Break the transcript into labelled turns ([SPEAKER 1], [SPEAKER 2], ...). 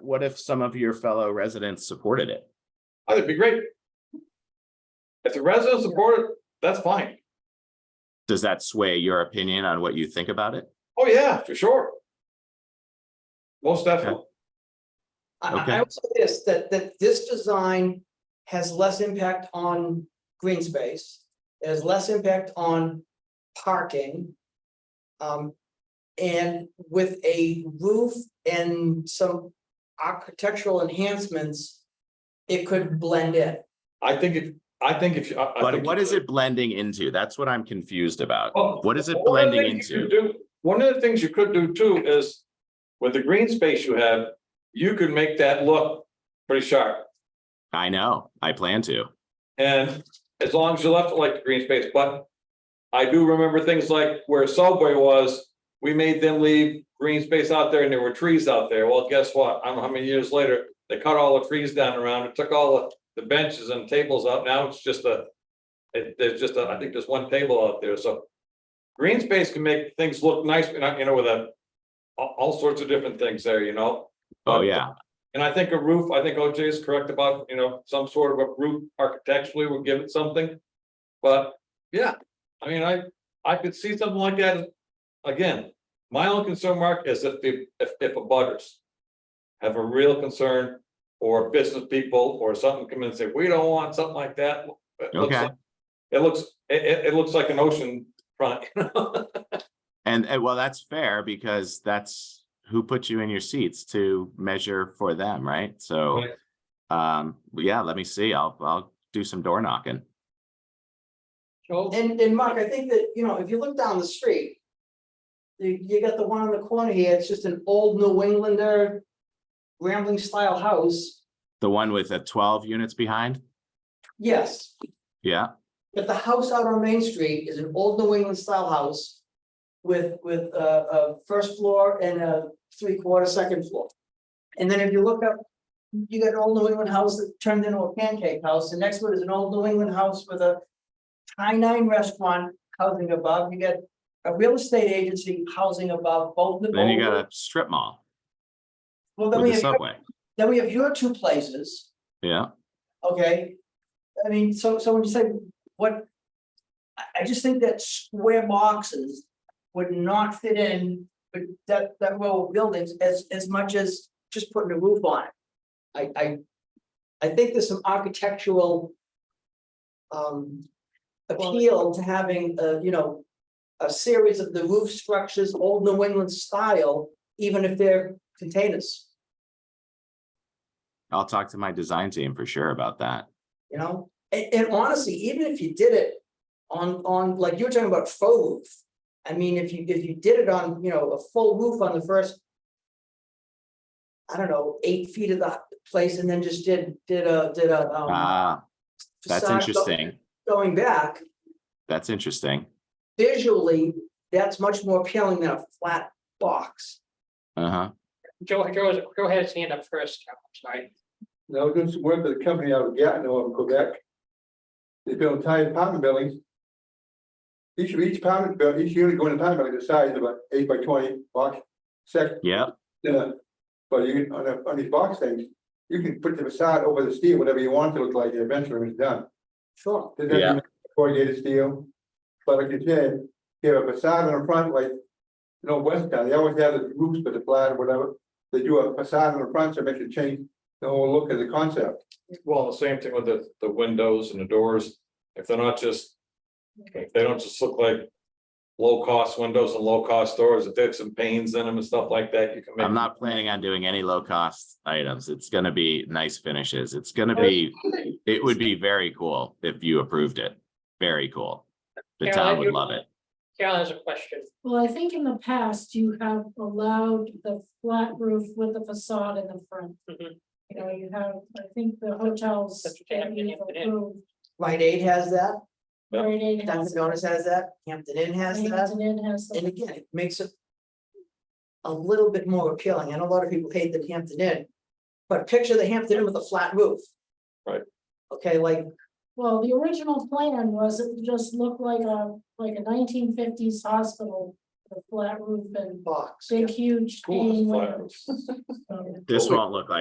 [SPEAKER 1] what if some of your fellow residents supported it?
[SPEAKER 2] Oh, That'd be great. If the residents support it, that's fine.
[SPEAKER 1] Does that sway your opinion on what you think about it?
[SPEAKER 2] Oh, yeah, for sure. Most definitely.
[SPEAKER 3] I- I,
[SPEAKER 1] Okay.
[SPEAKER 3] I would say this, that, that this design has less impact on green space, it has less impact on parking. Um, and with a roof and some architectural enhancements, it could blend in.
[SPEAKER 2] I think if, I think if. you- I- I
[SPEAKER 1] But
[SPEAKER 2] think
[SPEAKER 1] what
[SPEAKER 2] you
[SPEAKER 1] is
[SPEAKER 2] could.
[SPEAKER 1] it blending into? That's what I'm confused about.
[SPEAKER 2] Oh,
[SPEAKER 1] What is it
[SPEAKER 2] one of the
[SPEAKER 1] blending
[SPEAKER 2] things you
[SPEAKER 1] into?
[SPEAKER 2] could do- One of the things you could do too is with the green space you have, you could make that look pretty sharp.
[SPEAKER 1] I know, I plan to.
[SPEAKER 2] And as long as you left it like the green space, but I do remember things like where Subway was, we made them leave green space out there and there were trees out there. Well, guess what? I don't know how many years later, they cut all the trees down around it, took all the, the benches and tables out. Now it's just a, it, there's just, a- I think there's one table out there, so green space can make things look nice, you know, you know, with a, all, all sorts of different things there, you know?
[SPEAKER 1] Oh,
[SPEAKER 2] But-
[SPEAKER 1] yeah,
[SPEAKER 2] and I think a roof, I think OJ is correct about, you know, some sort of a roof architecturally would give it something. But, yeah, I mean, I, I could see something like that. Again, my only concern, Mark, is if the, if, if a butters. Have a real concern, or business people, or something come in and say, we don't want something like that. It looks
[SPEAKER 1] Okay.
[SPEAKER 2] like- It looks, it, it, it looks like an ocean front, you know?
[SPEAKER 1] and, and well, that's fair because that's who put you in your seats to measure for them, right? So.
[SPEAKER 2] Right.
[SPEAKER 1] Um, yeah, let me see, I'll, I'll do some door knocking.
[SPEAKER 3] And, and Mark, I think that, you know, if you look down the street. You, you got the one in the corner here, it's just an old New Englander rambling style house,
[SPEAKER 1] The one with the twelve units behind?
[SPEAKER 3] yes.
[SPEAKER 1] Yeah,
[SPEAKER 3] But the house out on Main Street is an old New England style house. With, with a, a first floor and a three quarter second floor. And then if you look up, you got an old New England house that turned into a pancake house, the next one is an old New England house with a. High nine restaurant housing above, you got a real estate agency housing above both the.
[SPEAKER 1] then you got a strip mall
[SPEAKER 3] Well, then we
[SPEAKER 1] with a
[SPEAKER 3] have,
[SPEAKER 1] subway,
[SPEAKER 3] then we have your two places.
[SPEAKER 1] yeah,
[SPEAKER 3] Okay, I mean, so, so when you say what? I, I just think that square boxes would not fit in with that, that row of buildings as, as much as just putting a roof on it. I, I, I think there's some architectural. Um, appeal to having, uh, you know. A series of the roof structures, old New England style, even if they're containers,
[SPEAKER 1] I'll talk to my design team for sure about that.
[SPEAKER 3] you know? And, and honestly, even if you did it on, on, like you were talking about faux roof. I mean, if you, if you did it on, you know, a full roof on the first. I don't know, eight feet of the place and then just did, did a, did a, um.
[SPEAKER 1] Ah, that's
[SPEAKER 3] facade go-
[SPEAKER 1] interesting,
[SPEAKER 3] Going back
[SPEAKER 1] that's interesting,
[SPEAKER 3] visually, that's much more appealing than a flat box.
[SPEAKER 1] uh-huh.
[SPEAKER 4] Joe, Joe, Joe had his hand up first, Joe, I'm sorry.
[SPEAKER 5] No, this is where the company out of Gatineau in Quebec. They build entire apartment buildings. Each, each apartment, buil- each unit going apartment building the size of an eight by twenty box section,
[SPEAKER 1] Yeah,
[SPEAKER 5] uh, but you, can- on a, on these box things, you can put the facade over the steel, whatever you want it to look like, eventually when it's done.
[SPEAKER 3] Sure.
[SPEAKER 5] Does that
[SPEAKER 1] Yeah.
[SPEAKER 5] mean Corrugated steel, but like you said, you have a facade on the front, like, you know, West Town, they always have the roofs with the flat or whatever. They do a facade on the front, so it makes it change the whole look of the concept.
[SPEAKER 2] Well, the same thing with the, the windows and the doors, if they're not just. If they don't just look like. Low cost windows and low cost doors, if they have some panes in them and stuff like that, you can make.
[SPEAKER 1] I'm not planning on doing any low cost items. It's gonna be nice finishes. It's gonna be, it would be very cool if you approved it. Very cool. The
[SPEAKER 4] Yeah,
[SPEAKER 1] town
[SPEAKER 4] I
[SPEAKER 1] would
[SPEAKER 4] do.
[SPEAKER 1] love it.
[SPEAKER 4] Carol has a question.
[SPEAKER 6] Well, I think in the past you have allowed the flat roof with the facade in the front.
[SPEAKER 4] Mhm.
[SPEAKER 6] You know, you have, I think the hotels.
[SPEAKER 4] That's what they have in Hampton Inn.
[SPEAKER 3] Rite Aid has that,
[SPEAKER 2] Yeah.
[SPEAKER 6] Rite Aid has
[SPEAKER 3] Dunkin'
[SPEAKER 6] that,
[SPEAKER 3] Donuts has that, Hampton Inn has that.
[SPEAKER 6] Hampton Inn has that.
[SPEAKER 3] And again, it makes it. A little bit more appealing, and a lot of people hate the Hampton Inn. But picture the Hampton Inn with a flat roof.
[SPEAKER 2] Right.
[SPEAKER 3] Okay, like,
[SPEAKER 6] Well, the original plan was it would just looked like a, like a nineteen fifties hospital, with a flat roof and
[SPEAKER 3] box.
[SPEAKER 6] big huge.
[SPEAKER 2] Cool,
[SPEAKER 6] hanging
[SPEAKER 2] flat
[SPEAKER 6] windows.
[SPEAKER 2] roofs.
[SPEAKER 6] So-
[SPEAKER 1] This won't look like